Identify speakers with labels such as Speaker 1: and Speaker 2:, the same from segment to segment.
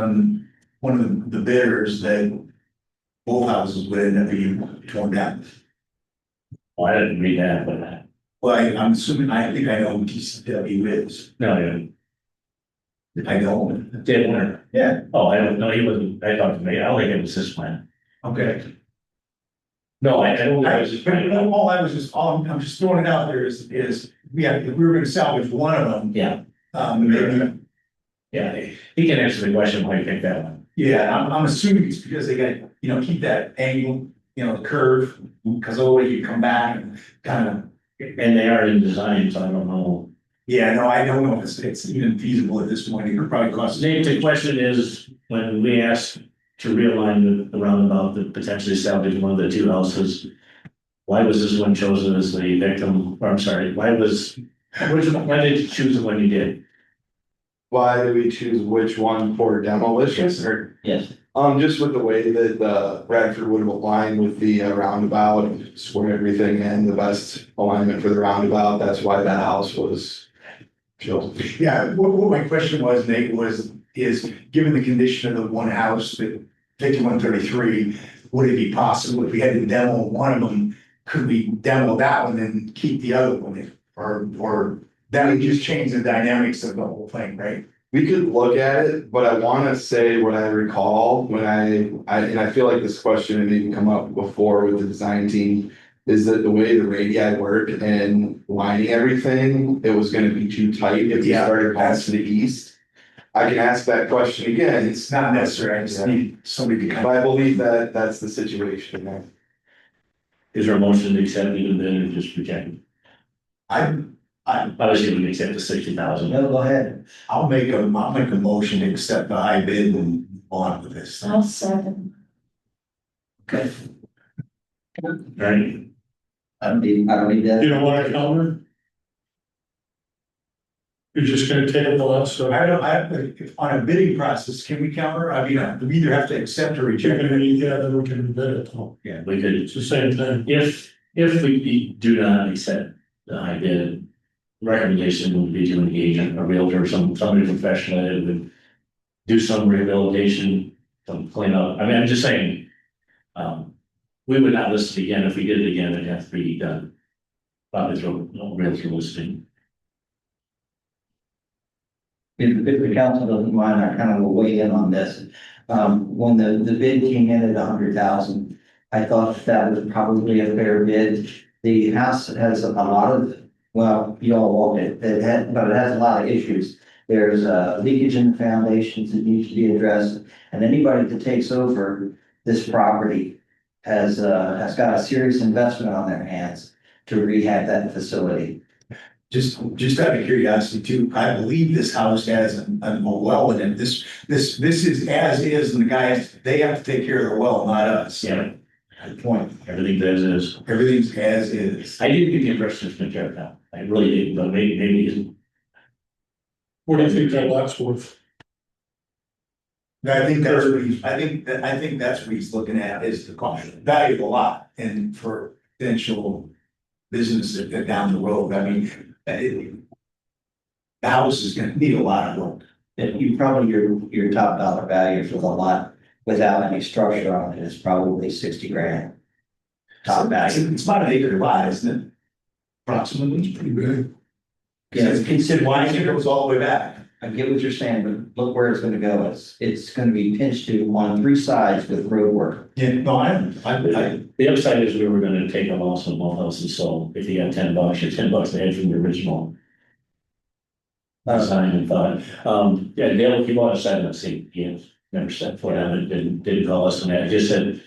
Speaker 1: on one of the bidders that both houses would end up being torn down.
Speaker 2: Well, I didn't read that, but uh,
Speaker 1: Well, I- I'm assuming, I think I know who DCW is,
Speaker 2: no, you
Speaker 1: if I don't.
Speaker 2: did winner.
Speaker 1: Yeah.
Speaker 2: Oh, I don't know. He wasn't, I talked to me. I don't think it was his plan.
Speaker 1: Okay.
Speaker 2: No, I I don't. think
Speaker 1: I
Speaker 2: it
Speaker 1: was
Speaker 2: was his
Speaker 1: just, but
Speaker 2: plan.
Speaker 1: all I was just, all I'm, I'm just throwing it out there is, is, we have, if we were gonna salvage one of them,
Speaker 2: Yeah,
Speaker 1: um, maybe.
Speaker 2: yeah. He can answer the question why you picked that one.
Speaker 1: Yeah, I'm, I'm assuming it's because they got, you know, keep that angle, you know, the curve, because otherwise you come back and kind of
Speaker 2: And they are in design, so I don't know.
Speaker 1: Yeah, no, I don't know if it's, it's even feasible at this point, it could probably cost.
Speaker 2: Nate, the question is, when we asked to realign the- the roundabout, to potentially salvage one of the two houses. Why was this one chosen as the victim, or I'm sorry, why was, which, why did you choose the one you did?
Speaker 3: Why do we choose which one for demolition? Or,
Speaker 2: Yes.
Speaker 3: um, just with the way that, uh, Bradford would have aligned with the uh, roundabout, square everything in, the best alignment for the roundabout, that's why that house was chosen.
Speaker 1: Yeah, what, what my question was, Nate, was, is, given the condition of the one house, the fifty-one thirty-three, would it be possible if we had to demo one of them, could we demo that one and keep the other one? Or, or that would just change the dynamics of the whole thing, right?
Speaker 3: We could look at it, but I wanna say what I recall when I, I, and I feel like this question had even come up before with the design team. Is that the way the radii work and lining everything, it was gonna be too tight if you
Speaker 1: Yeah,
Speaker 3: started past to the east. I can ask that question again, it's
Speaker 1: It's not necessary, I just need somebody to
Speaker 3: But
Speaker 1: come.
Speaker 3: I believe that that's the situation there.
Speaker 2: Is there a motion to accept even then, or just reject? it?
Speaker 1: I, I,
Speaker 2: I was gonna accept the sixty thousand.
Speaker 1: go ahead. I'll make a, I'll make a motion to accept the high bid and on with this.
Speaker 4: I'll second.
Speaker 1: Okay.
Speaker 2: Right?
Speaker 5: I don't need, I don't need that.
Speaker 6: You don't want to counter? You're just gonna table us, so
Speaker 1: I don't, I, if, on a bidding process, can we counter? I mean, uh, we either have to accept or
Speaker 6: you're
Speaker 1: reject.
Speaker 6: gonna need, yeah, then we can bid it, though.
Speaker 2: We could,
Speaker 6: it's the same thing.
Speaker 2: if, if we be- do not accept the high bid, recommendation would be to engage a realtor, some, somebody professional that would do some rehabilitation, some cleanup. I mean, I'm just saying, um, we would not list it again. If we did it again, it'd have to be done. Probably through a realtor listing.
Speaker 5: If, if the council doesn't mind, I kind of will weigh in on this. Um, when the, the bid came in at a hundred thousand, I thought that was probably a fair bid. The house has a lot of, well, you all walked it, it had, but it has a lot of issues. There's, uh, leakage in the foundations that needs to be addressed, and anybody that takes over this property has, uh, has got a serious investment on their hands to rehab that facility.
Speaker 1: Just, just out of curiosity too, I believe this house has an, an a well in it. This, this, this is as is and the guys, they have to take care of the well, not us.
Speaker 2: Yeah,
Speaker 1: Good point.
Speaker 2: everything that is.
Speaker 1: Everything's as is.
Speaker 2: I did get the impression it's been checked out. I really did, but maybe, maybe it's
Speaker 6: What do you think that lot's worth?
Speaker 1: I think that's what he's, I think, that- I think that's what he's looking at is the cost, value of the lot and for potential business that- that down the road. I mean, uh, it- the house is gonna need a lot of work.
Speaker 5: that you probably, your, your top dollar value for the lot without any structure on it is probably sixty grand. Top value,
Speaker 1: It's about an acre wide, isn't it? Approximately, it's pretty big.
Speaker 5: Yeah, it's considered-
Speaker 1: Why it goes all the way back?
Speaker 5: I get what you're saying, but look where it's gonna go, it's, it's gonna be pinched to on three sides with road work.
Speaker 1: Yeah, no, I, I, I,
Speaker 2: The upside is we were gonna take a loss on both houses, so if you got ten bucks, you're ten bucks ahead from the original
Speaker 5: Uh,
Speaker 2: design and thought. Um, yeah, Dale, he bought a side of the seat, he had never set foot on it, didn't, didn't call us and that, just said,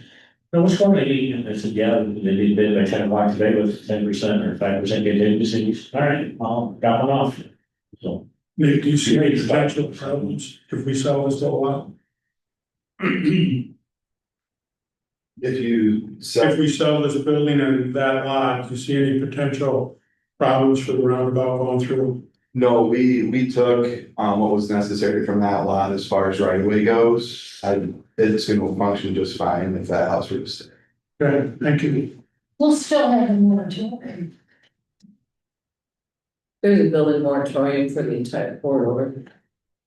Speaker 2: no, what's going on? And I said, yeah, they did bid by ten bucks today with ten percent or five percent get in, he said, all right, I'll drop one off. So,
Speaker 6: Nate, do you see any potential problems if we sell this to a lot?
Speaker 3: If you
Speaker 6: If
Speaker 3: sell,
Speaker 6: we sell this building and that lot, do you see any potential problems for the roundabout going through?
Speaker 3: no, we, we took, um, what was necessary from that lot as far as right away goes. I, it's gonna function just fine if that house was.
Speaker 6: Okay, thank you.
Speaker 4: We'll still have a moratorium.
Speaker 7: There's a building moratorium for the entire corridor.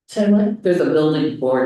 Speaker 4: So what?
Speaker 7: There's a building moratorium